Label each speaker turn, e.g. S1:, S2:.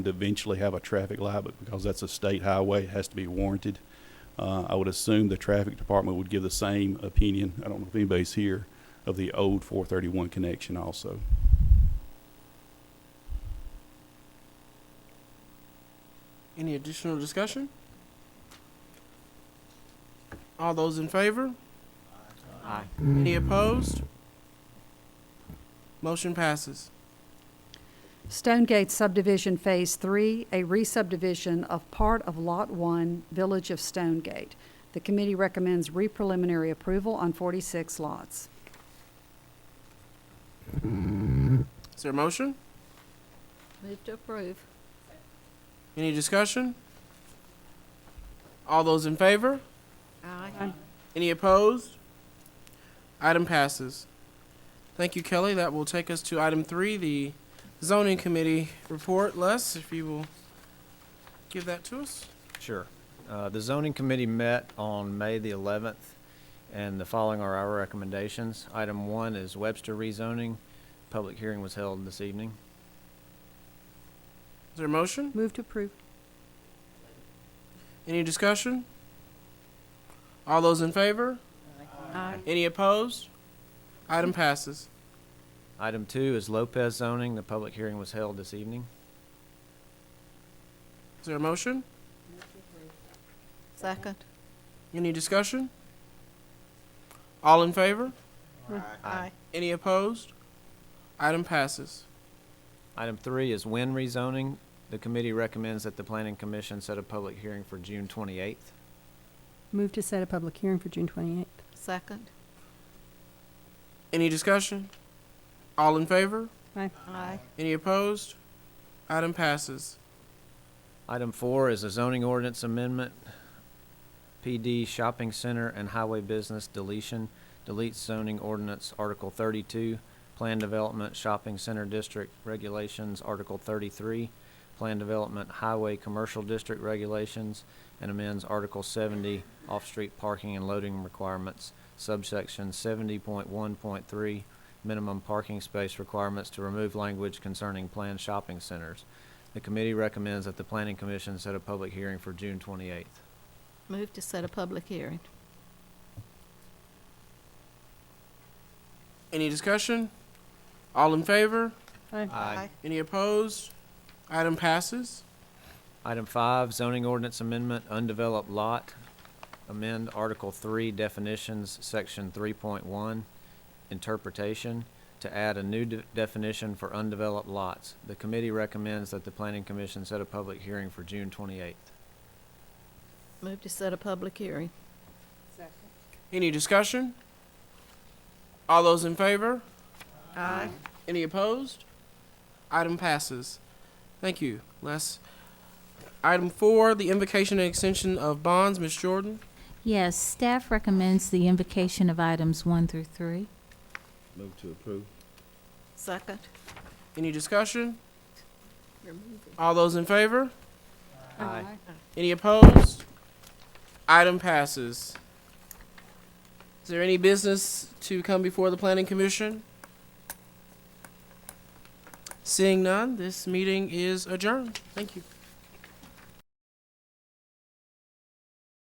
S1: to eventually have a traffic light, but because that's a state highway, it has to be warranted. Uh, I would assume the traffic department would give the same opinion, I don't know if anybody's here, of the old four thirty-one connection also.
S2: Any additional discussion? All those in favor?
S3: Aye.
S2: Any opposed? Motion passes.
S4: Stonegate subdivision Phase 3, a re-subdivision of part of Lot 1, Village of Stonegate. The committee recommends re-preliminary approval on 46 lots.
S2: Is there a motion?
S5: Move to approve.
S2: Any discussion? All those in favor?
S5: Aye.
S2: Any opposed? Item passes. Thank you, Kelly. That will take us to item three, the zoning committee report. Les, if you will give that to us.
S3: Sure. Uh, The zoning committee met on May the 11th, and the following are our recommendations. Item one is Webster rezoning. Public hearing was held this evening.
S2: Is there a motion?
S4: Move to approve.
S2: Any discussion? All those in favor?
S5: Aye.
S2: Any opposed? Item passes.
S3: Item two is Lopez zoning. The public hearing was held this evening.
S2: Is there a motion?
S5: Second.
S2: Any discussion? All in favor?
S3: Aye.
S2: Any opposed? Item passes.
S3: Item three is Wynn rezoning. The committee recommends that the planning commission set a public hearing for June 28th.
S6: Move to set a public hearing for June 28th.
S5: Second.
S2: Any discussion? All in favor?
S5: Aye.
S2: Any opposed? Item passes.
S3: Item four is a zoning ordinance amendment. PD Shopping Center and Highway Business deletion. Deletes zoning ordinance Article thirty-two, Plan Development Shopping Center District Regulations, Article thirty-three, Plan Development Highway Commercial District Regulations, and amends Article seventy, Off-Street Parking and Loading Requirements, subsection seventy point one point three, Minimum Parking Space Requirements to remove language concerning planned shopping centers. The committee recommends that the planning commission set a public hearing for June twenty-eighth.
S5: Move to set a public hearing.
S2: Any discussion? All in favor?
S3: Aye.
S2: Any opposed? Item passes.
S3: Item five, zoning ordinance amendment, undeveloped lot. Amend Article three definitions, section three point one, interpretation, to add a new de- definition for undeveloped lots. The committee recommends that the planning commission set a public hearing for June twenty-eighth.
S5: Move to set a public hearing.
S2: Any discussion? All those in favor?
S5: Aye.
S2: Any opposed? Item passes. Thank you, Les. Item four, the invocation and extension of bonds. Ms. Jordan,
S7: Yes, staff recommends the invocation of items one through three.
S8: Move to approve.
S5: Second.
S2: any discussion? All those in favor?
S3: Aye.
S2: Any opposed? Item passes. Is there any business to come before the planning commission? Seeing none, this meeting is adjourned. Thank you.